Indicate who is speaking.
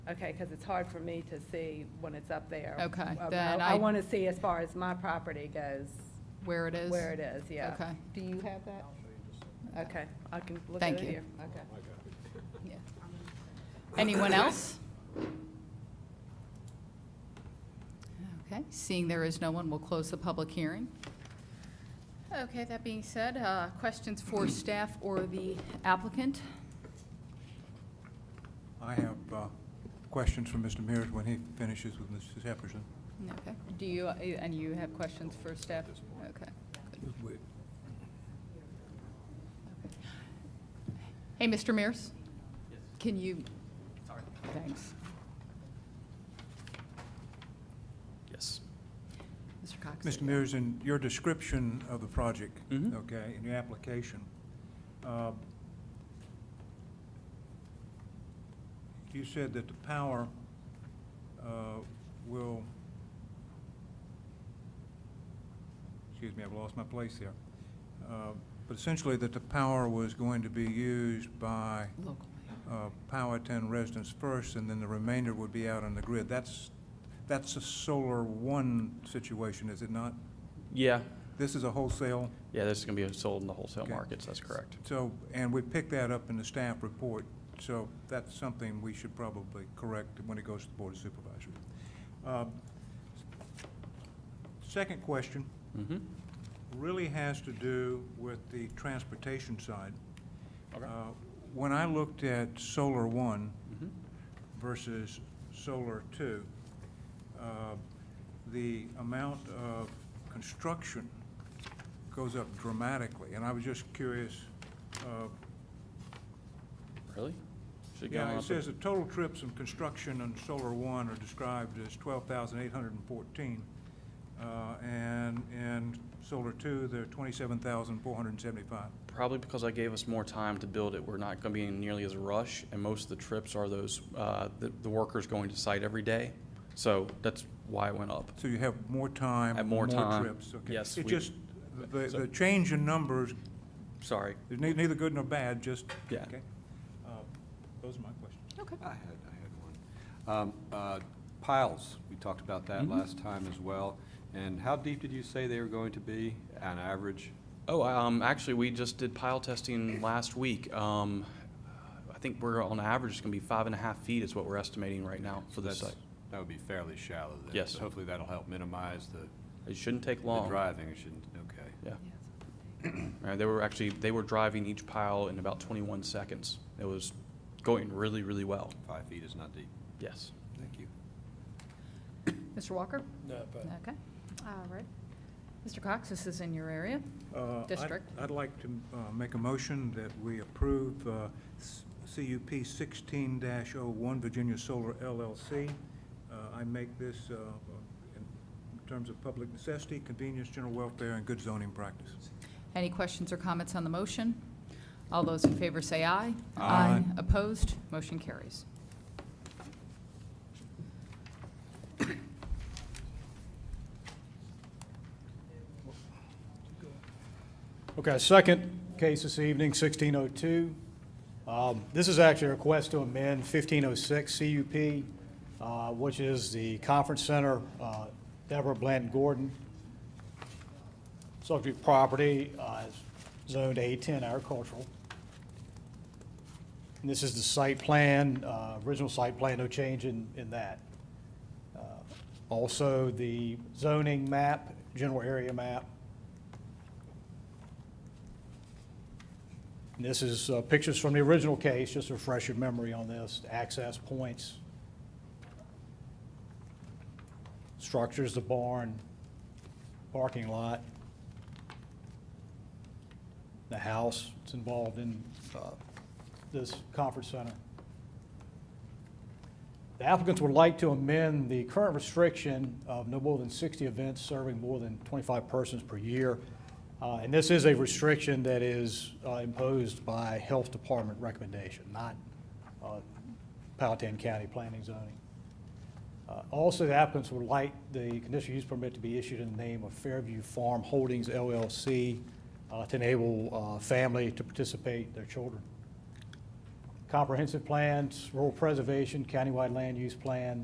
Speaker 1: Okay, because it's hard for me to see when it's up there.
Speaker 2: Okay,
Speaker 1: Uh,
Speaker 2: then
Speaker 1: I
Speaker 2: I-
Speaker 1: want to see as far as my property goes,
Speaker 2: where it is?
Speaker 1: where it is, yeah.
Speaker 2: Okay.
Speaker 1: Do you have that? Okay, I can look at
Speaker 2: Thank
Speaker 1: it
Speaker 2: you.
Speaker 1: here. Okay.
Speaker 2: Yeah. Anyone else? Okay, seeing there is no one, we'll close the public hearing. Okay, that being said, uh, questions for staff or the applicant?
Speaker 3: I have uh, questions for Mr. Mears when he finishes with Mrs. Epperson.
Speaker 2: Okay, do you, uh, and you have questions for staff? Okay. Hey, Mr. Mears? Yes. Can you? Sorry. Thanks.
Speaker 4: Yes.
Speaker 2: Mr. Cox?
Speaker 3: Mr. Mears, in your description of the project,
Speaker 4: Mhm.
Speaker 3: okay, in your application, uh, you said that the power uh, will, excuse me, I've lost my place there, Uh, but essentially that the power was going to be used by
Speaker 2: Local.
Speaker 3: uh, Powhatan residents first, and then the remainder would be out on the grid. That's, that's a solar one situation, is it not?
Speaker 4: Yeah,
Speaker 3: This is a wholesale,
Speaker 4: yeah, this is gonna be sold in the wholesale
Speaker 3: Okay.
Speaker 4: markets, that's correct.
Speaker 3: so, and we picked that up in the staff report, so that's something we should probably correct when it goes to the Board of Supervisors. Uh, Second question
Speaker 4: Mm-hmm,
Speaker 3: really has to do with the transportation side.
Speaker 4: Okay.
Speaker 3: Uh, When I looked at Solar One,
Speaker 4: mm-hmm,
Speaker 3: versus solar two, uh, the amount of construction goes up dramatically, and I was just curious. uh,
Speaker 4: really? Should it go
Speaker 3: Yeah,
Speaker 4: up
Speaker 3: it
Speaker 4: a-
Speaker 3: says the total trips and construction on solar one are described as twelve thousand eight hundred and fourteen, uh, and in solar two, they're twenty-seven thousand four hundred and seventy-five.
Speaker 4: Probably because I gave us more time to build it, we're not gonna be in nearly as a rush, and most of the trips are those, uh, the, the workers going to site every day. So that's why it went up.
Speaker 3: So you have more time.
Speaker 4: Have more time.
Speaker 3: trips, okay.
Speaker 4: Yes,
Speaker 3: It
Speaker 4: we-
Speaker 3: just, the,
Speaker 4: So-
Speaker 3: the change in numbers
Speaker 4: Sorry.
Speaker 3: There's nei- neither good nor bad, just,
Speaker 4: Yeah.
Speaker 3: okay? Uh, Those are my questions.
Speaker 2: Okay.
Speaker 5: I had, I had one. Um, uh, Piles, we talked about that
Speaker 4: Mhm.
Speaker 5: last time as well. And how deep did you say they were going to be on average?
Speaker 4: Oh, um, actually, we just did pile testing last week. Um, I think we're on average, it's gonna be five and a half feet is what we're estimating right now for this
Speaker 5: That's-
Speaker 4: site.
Speaker 5: That would be fairly shallow then.
Speaker 4: Yes.
Speaker 5: So Hopefully that'll help minimize the
Speaker 4: It shouldn't take
Speaker 5: the
Speaker 4: long.
Speaker 5: driving, it shouldn't, okay.
Speaker 4: Yeah. Uh, They were actually, they were driving each pile in about 21 seconds. It was going really, really well.
Speaker 5: Five feet is not deep.
Speaker 4: Yes.
Speaker 5: Thank you.
Speaker 2: Mr. Walker? No, but. Okay, all right. Mr. Cox, this is in your area?
Speaker 3: Uh, I'd-
Speaker 2: District.
Speaker 3: I'd like to uh, make a motion that we approve uh, s- CUP 16-01 Virginia Solar LLC. Uh, I make this uh, in terms of public necessity, convenience, general welfare, and good zoning practice.
Speaker 2: Any questions or comments on the motion? All those in favor say aye.
Speaker 5: Aye.
Speaker 2: Opposed? Motion carries.
Speaker 6: Okay, second case this evening, 1602. Um, This is actually a request to amend 1506 CUP, uh, which is the Conference Center, uh, Deborah Bland Gordon. Subject property uh, is zoned A10 agricultural. And this is the site plan, uh, original site plan, no change in in that. Uh, Also, the zoning map, general area map, And This is uh, pictures from the original case, just to refresh your memory on this, access points, structures, the barn, parking lot, the house that's involved in uh, this conference center. The applicants would like to amend the current restriction of no more than 60 events serving more than 25 persons per year. Uh, And this is a restriction that is uh, imposed by Health Department recommendation, not uh, Powhatan County Planning Zoning. Uh, Also, the applicants would like the conditional use permit to be issued in the name of Fairview Farm Holdings LLC uh, to enable uh, family to participate, their children. comprehensive plans, rural preservation, countywide land use plan,